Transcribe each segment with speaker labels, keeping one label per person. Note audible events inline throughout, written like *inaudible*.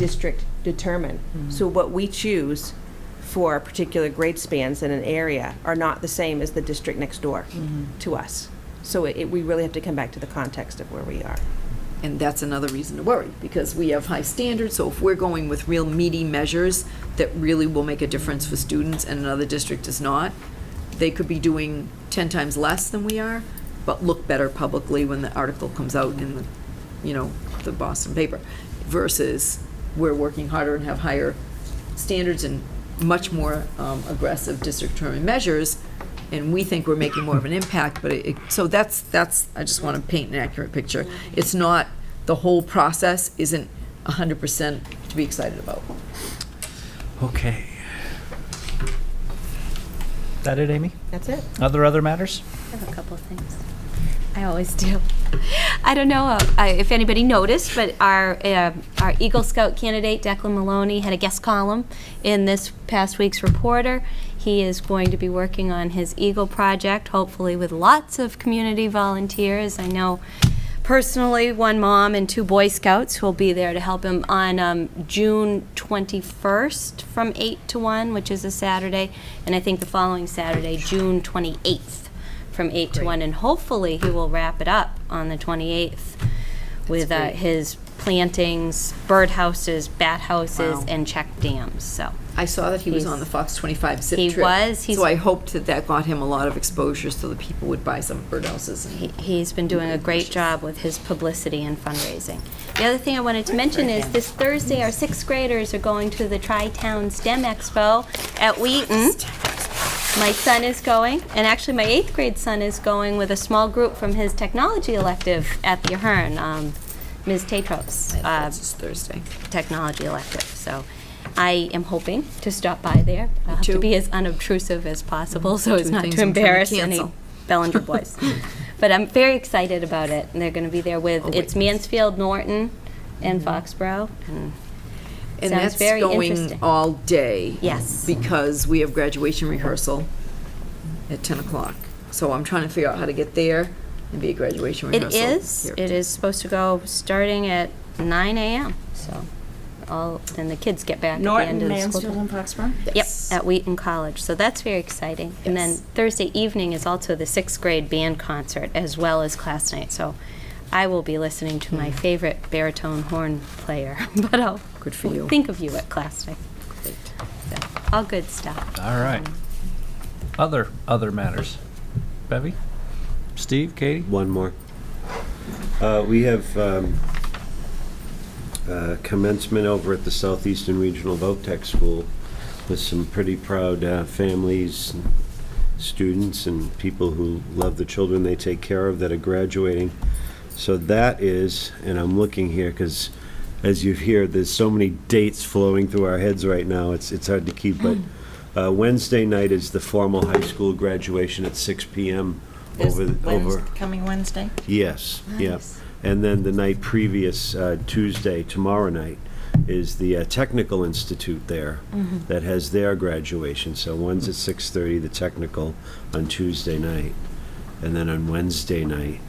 Speaker 1: district determine.
Speaker 2: Mm-hmm.
Speaker 1: So what we choose for particular grade spans in an area are not the same as the district next door
Speaker 2: Mm-hmm.
Speaker 1: to us. So it, it- we really have to come back to the context of where we are.
Speaker 3: And that's another reason to worry, because we have high standards, so if we're going with real meaty measures that really will make a difference for students and another district is not, they could be doing ten times less than we are, but look better publicly when the article comes out in the, you know, the Boston paper, versus we're working harder and have higher standards and much more um, aggressive district determined measures, and we think we're making more of
Speaker 4: *laughs*
Speaker 3: an impact, but it, so that's, that's, I just want to paint an accurate picture. It's not, the whole process isn't 100% to be excited about.
Speaker 5: Okay. That it, Amy?
Speaker 1: That's it.
Speaker 5: Other, other matters?
Speaker 4: I have a couple of things. I always do. I don't know uh, I- if anybody noticed, but our uh, our Eagle Scout candidate Declan Maloney had a guest column in this past week's Reporter. He is going to be working on his Eagle project, hopefully with lots of community volunteers. I know personally one mom and two Boy Scouts who will be there to help him on um, June 21st from 8 to 1, which is a Saturday, and I think the following Saturday, June 28th from 8 to 1, and hopefully he will wrap it up on the 28th with uh,
Speaker 3: great.
Speaker 4: his plantings, bird houses, bat houses,
Speaker 3: Wow.
Speaker 4: and check dams. So
Speaker 3: I saw that he was on the
Speaker 4: He's-
Speaker 3: Fox 25 zip
Speaker 4: He
Speaker 3: trip.
Speaker 4: was, he's-
Speaker 3: So I hoped that that got him a lot of exposure so that people would buy some birdhouses.
Speaker 4: he,
Speaker 3: and-
Speaker 4: he's been doing a great job with his publicity and fundraising. The other thing I wanted to mention is this Thursday, our sixth graders are going to the Tri-Town STEM Expo at Wheaton. My son is going, and actually my eighth grade son is going with a small group from his technology elective at the Ahern, um, Ms. Tatros.
Speaker 3: And
Speaker 4: uh,
Speaker 3: That's just Thursday.
Speaker 4: technology elective. So I am hoping to stop by there. I'll have
Speaker 3: too.
Speaker 4: to be as unobtrusive as possible so as
Speaker 3: Two
Speaker 4: not
Speaker 3: things
Speaker 4: to
Speaker 3: I'm trying to
Speaker 4: embarrass any
Speaker 3: cancel.
Speaker 4: Bellinger boys. *laughs* But I'm very excited about it. And they're going to be there with,
Speaker 3: Oh, wait.
Speaker 4: it's Mansfield, Norton, and
Speaker 2: Mm-hmm.
Speaker 4: Foxborough. And
Speaker 3: And
Speaker 4: Sounds
Speaker 3: that's
Speaker 4: very
Speaker 3: going
Speaker 4: interesting.
Speaker 3: all day.
Speaker 4: Yes.
Speaker 3: Because we have graduation rehearsal at 10 o'clock. So I'm trying to figure out how to get there and be a graduation
Speaker 4: It
Speaker 3: rehearsal.
Speaker 4: is,
Speaker 3: here.
Speaker 4: it is supposed to go starting at 9 a.m. So all, and the kids get back at the end
Speaker 2: Norton,
Speaker 4: of the
Speaker 2: Mansfield,
Speaker 4: school. day.
Speaker 2: and Foxborough?
Speaker 4: Yep,
Speaker 3: Yes.
Speaker 4: at Wheaton College. So that's very exciting. And then
Speaker 3: Yes.
Speaker 4: Thursday evening is also the sixth grade band concert as well as class night. So I will be listening to my favorite baritone horn player, *laughs* but I'll
Speaker 3: Mm. Good for you.
Speaker 4: think of you at class night. So, all good stuff.
Speaker 5: All right. Other, other matters? Bevy? Steve? Katie?
Speaker 6: One more. Uh, We have um, uh, commencement over at the Southeastern Regional Voc Tech School with some pretty proud uh, families, and students, and people who love the children they take care of that are graduating. So that is, and I'm looking here because, as you hear, there's so many dates flowing through our heads right now, it's, it's hard to keep, but
Speaker 2: Mm.
Speaker 6: uh, Wednesday night is the formal high school graduation at 6 PM
Speaker 2: This
Speaker 6: over, the-
Speaker 2: Wednes-
Speaker 6: over.
Speaker 2: Coming Wednesday?
Speaker 6: Yes, yeah.
Speaker 2: Nice.
Speaker 6: And then the night previous, uh, Tuesday, tomorrow night, is the uh, Technical Institute there
Speaker 4: Mm-hmm.
Speaker 6: that has their graduation. So one's at 6:30, the technical, on Tuesday night. And then on Wednesday night,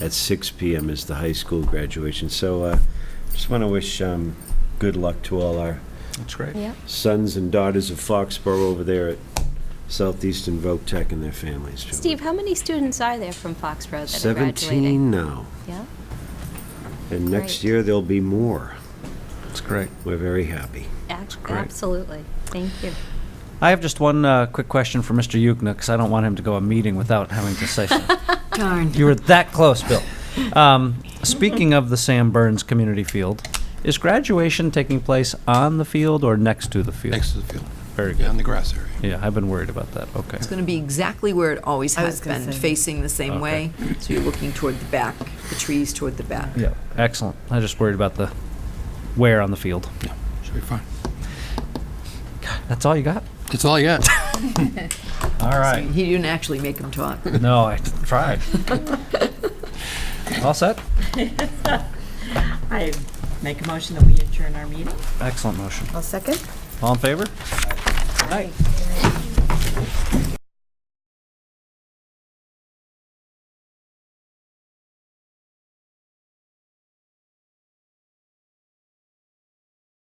Speaker 6: at 6 PM is the high school graduation. So uh, just want to wish um, good luck to all our
Speaker 5: That's great.
Speaker 4: Yeah.
Speaker 6: sons and daughters of Foxborough over there at Southeastern Voc Tech and their families. too.
Speaker 4: Steve, how many students are there from Foxborough that are graduating?
Speaker 6: 17 now.
Speaker 4: Yeah.
Speaker 6: And next
Speaker 4: Great.
Speaker 6: year, there'll be more.
Speaker 5: That's great.
Speaker 6: We're very happy.
Speaker 4: Ac-
Speaker 5: great.
Speaker 4: Absolutely. Thank you.
Speaker 5: I have just one uh, quick question for Mr. Yukna, because I don't want him to go a meeting without having to say something.
Speaker 3: *laughs* Darn.
Speaker 5: You were that close, Bill. Um, speaking of the Sam Burns Community Field, is graduation taking place on the field or next to the field?
Speaker 7: Next to the field.
Speaker 5: Very
Speaker 7: Yeah, in
Speaker 5: good.
Speaker 7: the grass area.
Speaker 5: Yeah, I've been worried about that. Okay.
Speaker 3: It's going to be exactly where it always has been, facing the same
Speaker 5: Okay.
Speaker 3: way. So you're looking toward the back, the trees toward the back.
Speaker 5: Yeah. Excellent. I just worried about the wear on the field.
Speaker 7: Should be fine.
Speaker 5: That's all you got?
Speaker 7: That's all I got.
Speaker 5: All
Speaker 3: I mean,
Speaker 5: right.
Speaker 3: He didn't actually make them talk.
Speaker 5: No, I tried. all set?
Speaker 2: I make a motion that we adjourn our meeting.
Speaker 5: Excellent motion.
Speaker 1: I'll second.
Speaker 5: All in favor? Aye.